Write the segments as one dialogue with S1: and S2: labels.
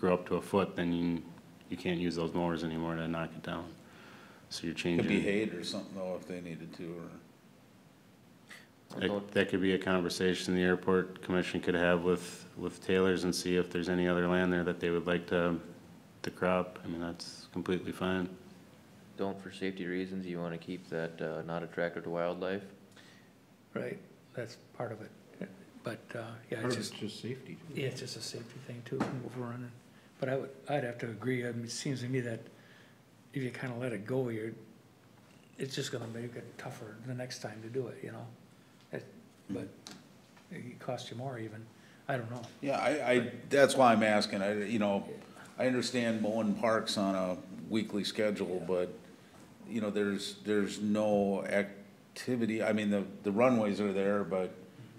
S1: grow up to a foot, then you, you can't use those mowers anymore to knock it down. So you're changing.
S2: Could be hayed or something though if they needed to, or,
S1: That that could be a conversation the airport commission could have with, with Taylor's and see if there's any other land there that they would like to, to crop. I mean, that's completely fine.
S3: Don't, for safety reasons, you want to keep that uh, not attractive to wildlife?
S4: Right, that's part of it. But, uh, yeah, it's
S5: Part of it's
S4: just,
S5: just safety.
S4: yeah, it's just a safety thing too, from overrunning. But I would, I'd have to agree, I mean, it seems to me that if you kinda let it go, you're, it's just gonna make it tougher the next time to do it, you know? It- But it costs you more even, I don't know.
S2: yeah, I, I, that's why I'm asking, I, you know, I understand mowing parks on a weekly schedule, but, you know, there's, there's no activity, I mean, the, the runways are there, but,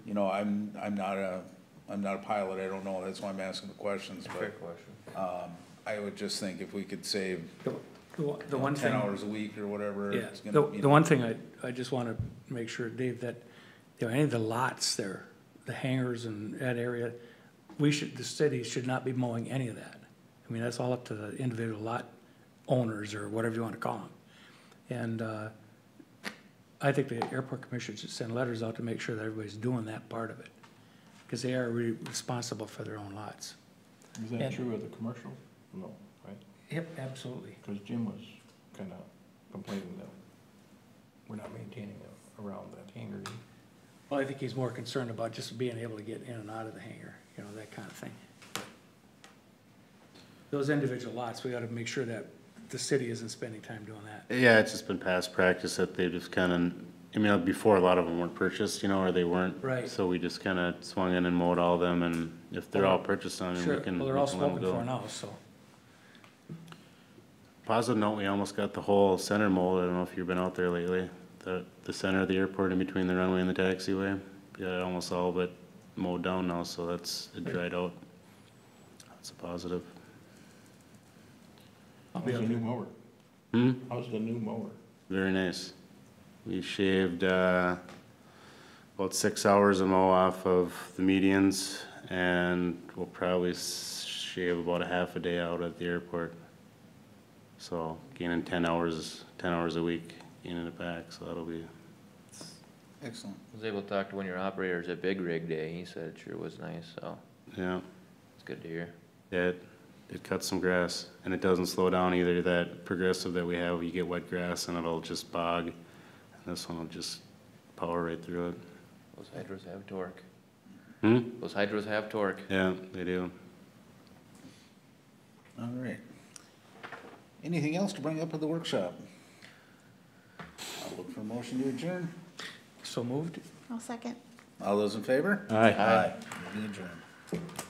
S2: you know, I'm, I'm not a, I'm not a pilot, I don't know, that's why I'm asking the questions,
S3: Fair
S2: but,
S3: question.
S2: um, I would just think if we could save
S4: The- The one- the one
S2: ten
S4: thing.
S2: hours a week or whatever,
S4: Yeah,
S2: it's
S4: the,
S2: gonna, you
S4: the
S2: know,
S4: one thing I, I just wanna make sure, Dave, that, you know, any of the lots there, the hangars and that area, we should, the city should not be mowing any of that. I mean, that's all up to the individual lot owners or whatever you wanna call them. And, uh, I think the airport commission should send letters out to make sure that everybody's doing that part of it. Cause they are re- responsible for their own lots.
S5: Is
S4: And-
S5: that true of the commercial? No, right?
S4: Yep, absolutely.
S5: Because Jim was kind of complaining that we're not maintaining it around that hangar.
S4: Well, I think he's more concerned about just being able to get in and out of the hangar, you know, that kind of thing. Those individual lots, we gotta make sure that the city isn't spending time doing that.
S1: Yeah, it's just been past practice that they just kind of, I mean, before, a lot of them weren't purchased, you know, or they weren't.
S4: Right.
S1: So we just kind of swung in and mowed all of them, and if they're all purchased on, it, we
S4: Sure,
S1: can.
S4: well, they're
S1: we
S4: all
S1: can let 'em
S4: spoken
S1: go.
S4: for now, so.
S1: Positive note, we almost got the whole center mold. I don't know if you've been out there lately. The, the center of the airport in between the runway and the taxiway. Yeah, almost all but mowed down now, so that's, it dried out. That's a positive.
S4: I'll be
S5: How's
S4: out
S5: the new
S4: there.
S5: mower?
S1: Hmm,
S5: How's the new mower?
S1: very nice. We shaved, uh, about six hours a mow off of the medians and we'll probably s- shave about a half a day out at the airport. So gaining ten hours, ten hours a week, gaining it back, so that'll be
S2: excellent.
S3: I was able to talk to one of your operators at Big Rig Day, he said it sure was nice, so
S1: Yeah,
S3: it's good to hear.
S1: it, it cuts some grass, and it doesn't slow down either, that progressive that we have, you get wet grass and it'll just bog, and this one will just power right through it.
S3: Those hydros have torque.
S1: Hmm,
S3: Those hydros have torque.
S1: yeah, they do.
S2: All right. Anything else to bring up at the workshop? I'll look for a motion to adjourn.
S4: So moved?
S6: I'll second.
S2: All those in favor?
S5: Aye.
S2: Meeting adjourned.